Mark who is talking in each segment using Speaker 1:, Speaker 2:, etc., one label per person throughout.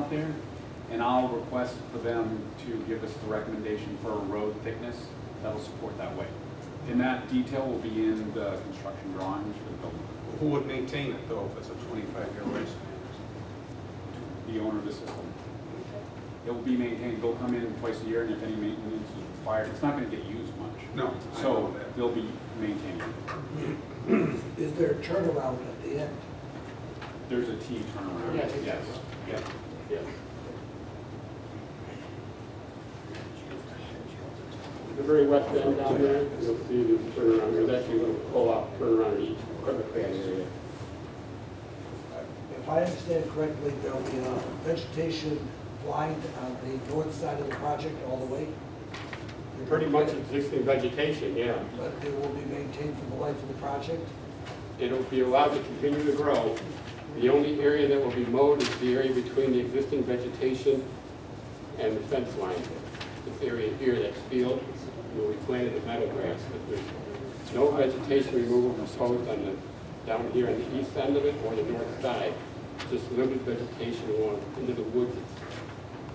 Speaker 1: there, and I'll request for them to give us the recommendation for a road thickness that'll support that weight. And that detail will be in the construction drawings for the building.
Speaker 2: Who would maintain it though if it's a 25-year lifespan?
Speaker 1: the owner of the system. It will be maintained, they'll come in twice a year, and if any maintenance is required, it's not gonna get used much.
Speaker 2: No, I know
Speaker 1: So
Speaker 2: that.
Speaker 1: they'll be maintained.
Speaker 3: Is there a turnaround at the end?
Speaker 1: There's a T turnaround,
Speaker 4: Yeah, it's-
Speaker 1: yes, yeah.
Speaker 4: Yeah. The very west end down there, you'll see the turnaround, there's actually a little pull-out turnaround in each curb area.
Speaker 3: If I understand correctly, there'll be a vegetation line on the north side of the project all the way?
Speaker 4: Pretty much existing vegetation, yeah.
Speaker 3: But it will be maintained for the life of the project?
Speaker 4: It'll be allowed to continue to grow. The only area that will be mowed is the area between the existing vegetation and the fence line. This area here, that's field, where we planted the meadow grass, but there's no vegetation removal proposed on the, down here on the east end of it or the north side, just limited vegetation along into the woods.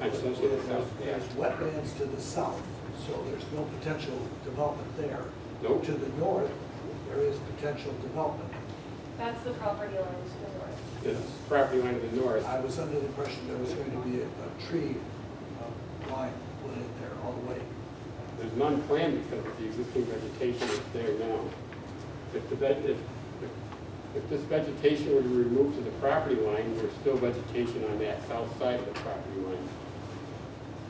Speaker 4: I'm so sorry, south, yeah.
Speaker 3: There's wetlands to the south, so there's no potential development there.
Speaker 4: Nope.
Speaker 3: To the north, there is potential development.
Speaker 5: That's the property line to the north.
Speaker 4: This property line to the north,
Speaker 3: I was under the impression there was going to be a a tree uh, line put in there all the way.
Speaker 4: There's none planned because of the existing vegetation that's there now. If the, veg- if, if this vegetation were to be removed to the property line, there's still vegetation on that south side of the property line.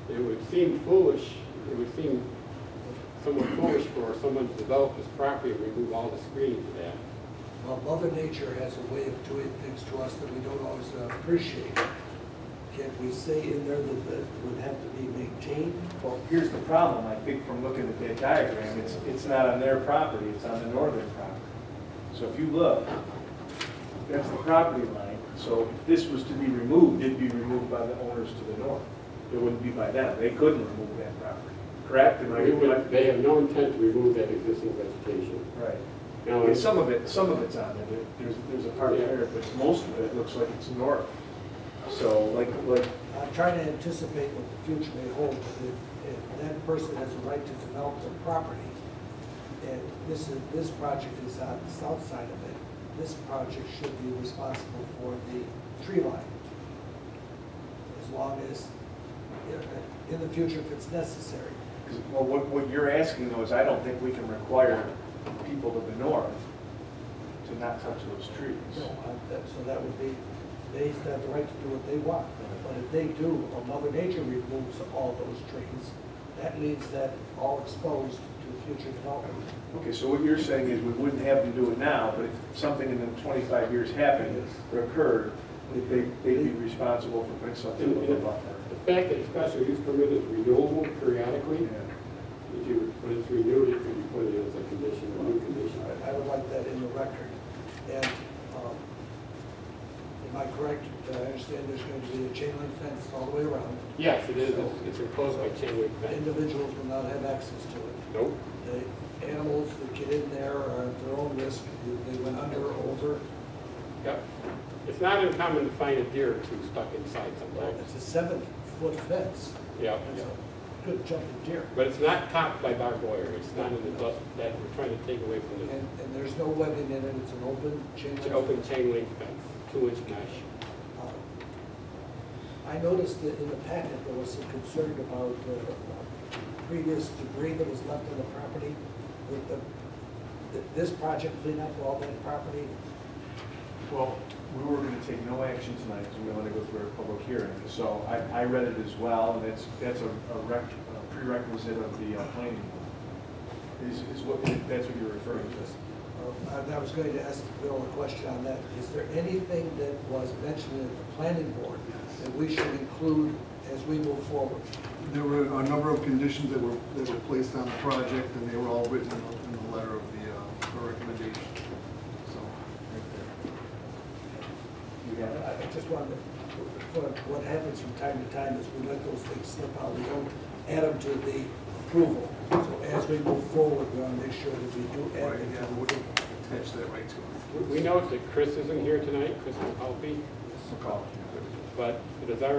Speaker 4: It would seem foolish, it would seem somewhat foolish for someone to develop this property and remove all the screening to that.
Speaker 3: Well, Mother Nature has a way of doing things to us that we don't always uh, appreciate. Can we say in there that that it would have to be maintained?
Speaker 6: Well, here's the problem, I think from looking at that diagram, it's, it's not on their property, it's on the northern property. So if you look, that's the property line, so if this was to be removed, it'd be removed by the owners to the north. It wouldn't be by them, they couldn't remove that property, correct? Am I-
Speaker 4: We would- They have no intent to remove that existing vegetation.
Speaker 6: Right.
Speaker 4: Now,
Speaker 6: And
Speaker 4: it's-
Speaker 6: some of it, some of it's on there, There- there's, there's a part there, but most of it looks like it's north. So like, like
Speaker 3: I'm trying to anticipate what the future may hold, but if, if that person has a right to develop their property, and this is, this project is on the south side of it, this project should be responsible for the tree line. As long as, in- in the future, if it's necessary.
Speaker 6: 'Cause, Well, what, what you're asking though is I don't think we can require people to the north to not touch those
Speaker 3: No,
Speaker 6: trees.
Speaker 3: I- that- so that would be, they have the right to do what they want, but if they do, or Mother Nature removes all those trees, that leaves that all exposed to future development.
Speaker 6: Okay, so what you're saying is we wouldn't have them do it now, but if something in the twenty-five years happened or occurred, that they, they'd be responsible for putting something in the buffer.
Speaker 4: The fact that a special use permit is renewable periodically,
Speaker 6: Yeah.
Speaker 4: If you, when it's renewed, it could be put in as a condition, a new condition.
Speaker 3: I I would like that in the record. And, um, am I correct, that I understand there's going to be a chain link fence all the way around?
Speaker 4: Yes, it is, It's- it's enclosed by chain link fence.
Speaker 3: Individuals will not have access to it.
Speaker 4: Nope.
Speaker 3: The animals that get in there are at their own risk, If they went under or over.
Speaker 4: Yep. It's not uncommon to find a deer or two stuck inside
Speaker 3: Well,
Speaker 4: sometimes.
Speaker 3: It's a seven-foot fence.
Speaker 4: Yeah,
Speaker 3: That's
Speaker 4: yeah.
Speaker 3: a good jumping deer.
Speaker 4: But it's not topped by barbed wire, it's not in the dust that we're trying to take away from
Speaker 3: And,
Speaker 4: the,
Speaker 3: and there's no webbing in it, it's an open chain
Speaker 4: it's
Speaker 3: link.
Speaker 4: an open chain link fence, two inch mesh.
Speaker 3: Uh, I noticed that in the packet, there was some concern about uh, previous debris that was left on the property. With the, that this project clean up all that property,
Speaker 6: Well, we were gonna take no action tonight because we wanted to go through a public hearing. So I, I read it as well, and that's, that's a a rec- a prerequisite of the uh, planning board. Is, is what, that's what you're referring to.
Speaker 3: Uh, I I was going to ask Bill a question on that. Is there anything that was mentioned in the planning board that we should include as we move forward?
Speaker 7: There were a number of conditions that were, that were placed on the project, and they were all written in the- in the letter of the, uh, the recommendation, so, right
Speaker 3: I I just wanted, to- for what happens from time to time is we let those things slip out, we don't add them to the approval. So as we move forward, we want to make sure that we do
Speaker 7: there.
Speaker 3: add
Speaker 7: Right,
Speaker 3: them
Speaker 7: yeah,
Speaker 3: to
Speaker 7: we
Speaker 3: the
Speaker 7: would attach that right to it.
Speaker 4: We- We noticed that Chris isn't here tonight, Chris McAlpey,
Speaker 6: McCall.
Speaker 4: but it is our